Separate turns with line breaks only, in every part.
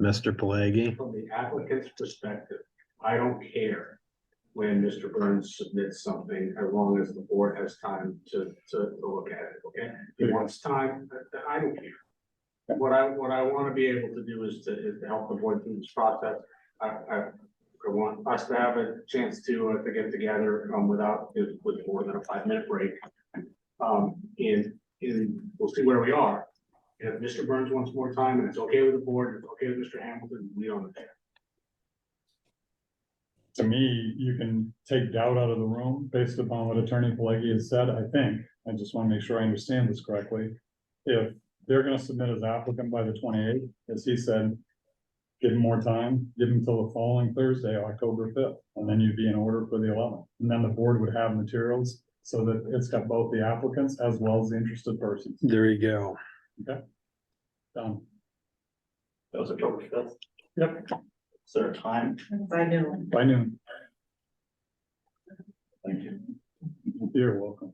Mr. Pelagi.
From the applicant's perspective, I don't care when Mr. Burns submits something, as long as the board has time to, to to look at it, okay? If he wants time, th- th- I don't care. What I, what I want to be able to do is to, is to help the board through this process. I, I, I want us to have a chance to, uh, to get together, um, without, with more than a five-minute break. Um, and, and we'll see where we are. And if Mr. Burns wants more time and it's okay with the board, it's okay with Mr. Hamilton, we own it.
to me, you can take doubt out of the room based upon what Attorney Pelleggi has said, I think. I just want to make sure I understand this correctly. If they're gonna submit as applicant by the twenty-eighth, as he said, give him more time, give him till the following Thursday, October fifth, and then you'd be in order for the eleventh. And then the board would have materials so that it's got both the applicants as well as the interested persons.
There you go.
Done.
That was October fifth.
Yep.
Is there a time?
By noon.
By noon,
Thank you.
you're welcome.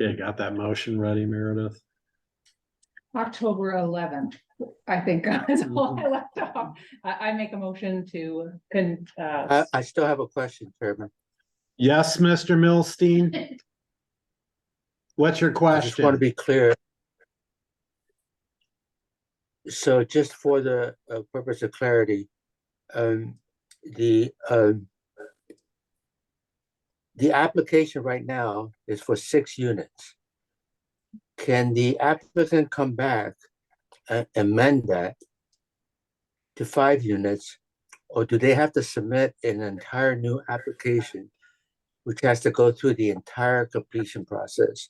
Okay, got that motion ready, Meredith?
October eleventh, I think, is all I left off. I, I make a motion to, can, uh,
I, I still have a question, Chairman.
Yes, Mr. Milstein? What's your
I just want to
question?
be clear. So just for the uh, purpose of clarity, um, the, um, the application right now is for six units. Can the applicant come back and amend that to five units? Or do they have to submit an entire new application, which has to go through the entire completion process?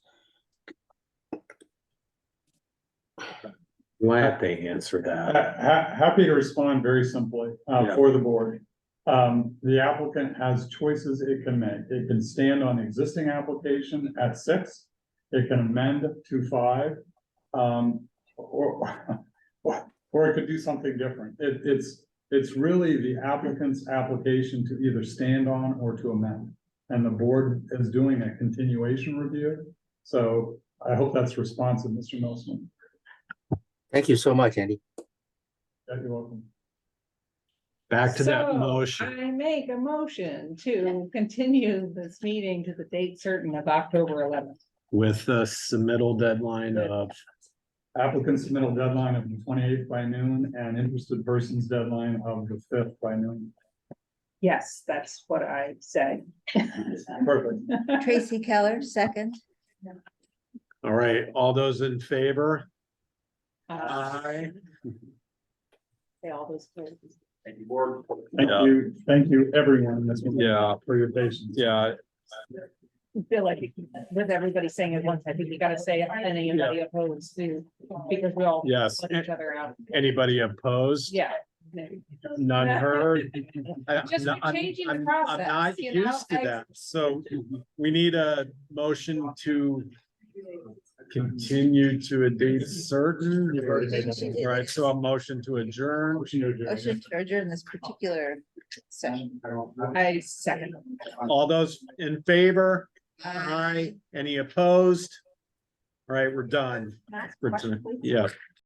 Glad they answered that.
Ha- ha- happy to respond very simply, uh,
Yeah.
for the board. Um, the applicant has choices it can make. It can stand on the existing application at six. It can amend to five, um, or, or, or it could do something different. It, it's, it's really the applicant's application to either stand on or to amend. And the board is doing a continuation review, so I hope that's responsive, Mr. Nelson.
Thank you so much, Andy.
Yeah, You're welcome.
Back to that
So,
motion.
I make a motion to continue this meeting to the date certain of October eleventh.
With the submittal deadline of,
Applicant's submittal deadline of the twenty-eighth by noon and interested person's deadline of the fifth by noon.
Yes, that's what I said. Uh,
Perfect.
Tracy Keller, second.
all right, all those in favor?
Uh, Say all those. things.
Thank you, board.
Thank you, thank you, everyone. this was-
Yeah.
For your patience.
Yeah,
Feel like with everybody saying it once, I think you gotta say it, and anybody opposed too, because we all
yes. eh,
put each other out.
Anybody opposed?
Yeah.
None heard? I-
Just
I'm- I'm-
changing the
I'm-
process,
I'm not
you know?
used to
I-
that, so we need a motion to continue to a date certain.
You've already made that
motion.
Right, so a motion to adjourn.
Motion to adjourn this particular session.
I second.
All those in favor?
Aye.
Any opposed? All right, we're done.
Not
We're done. Yeah,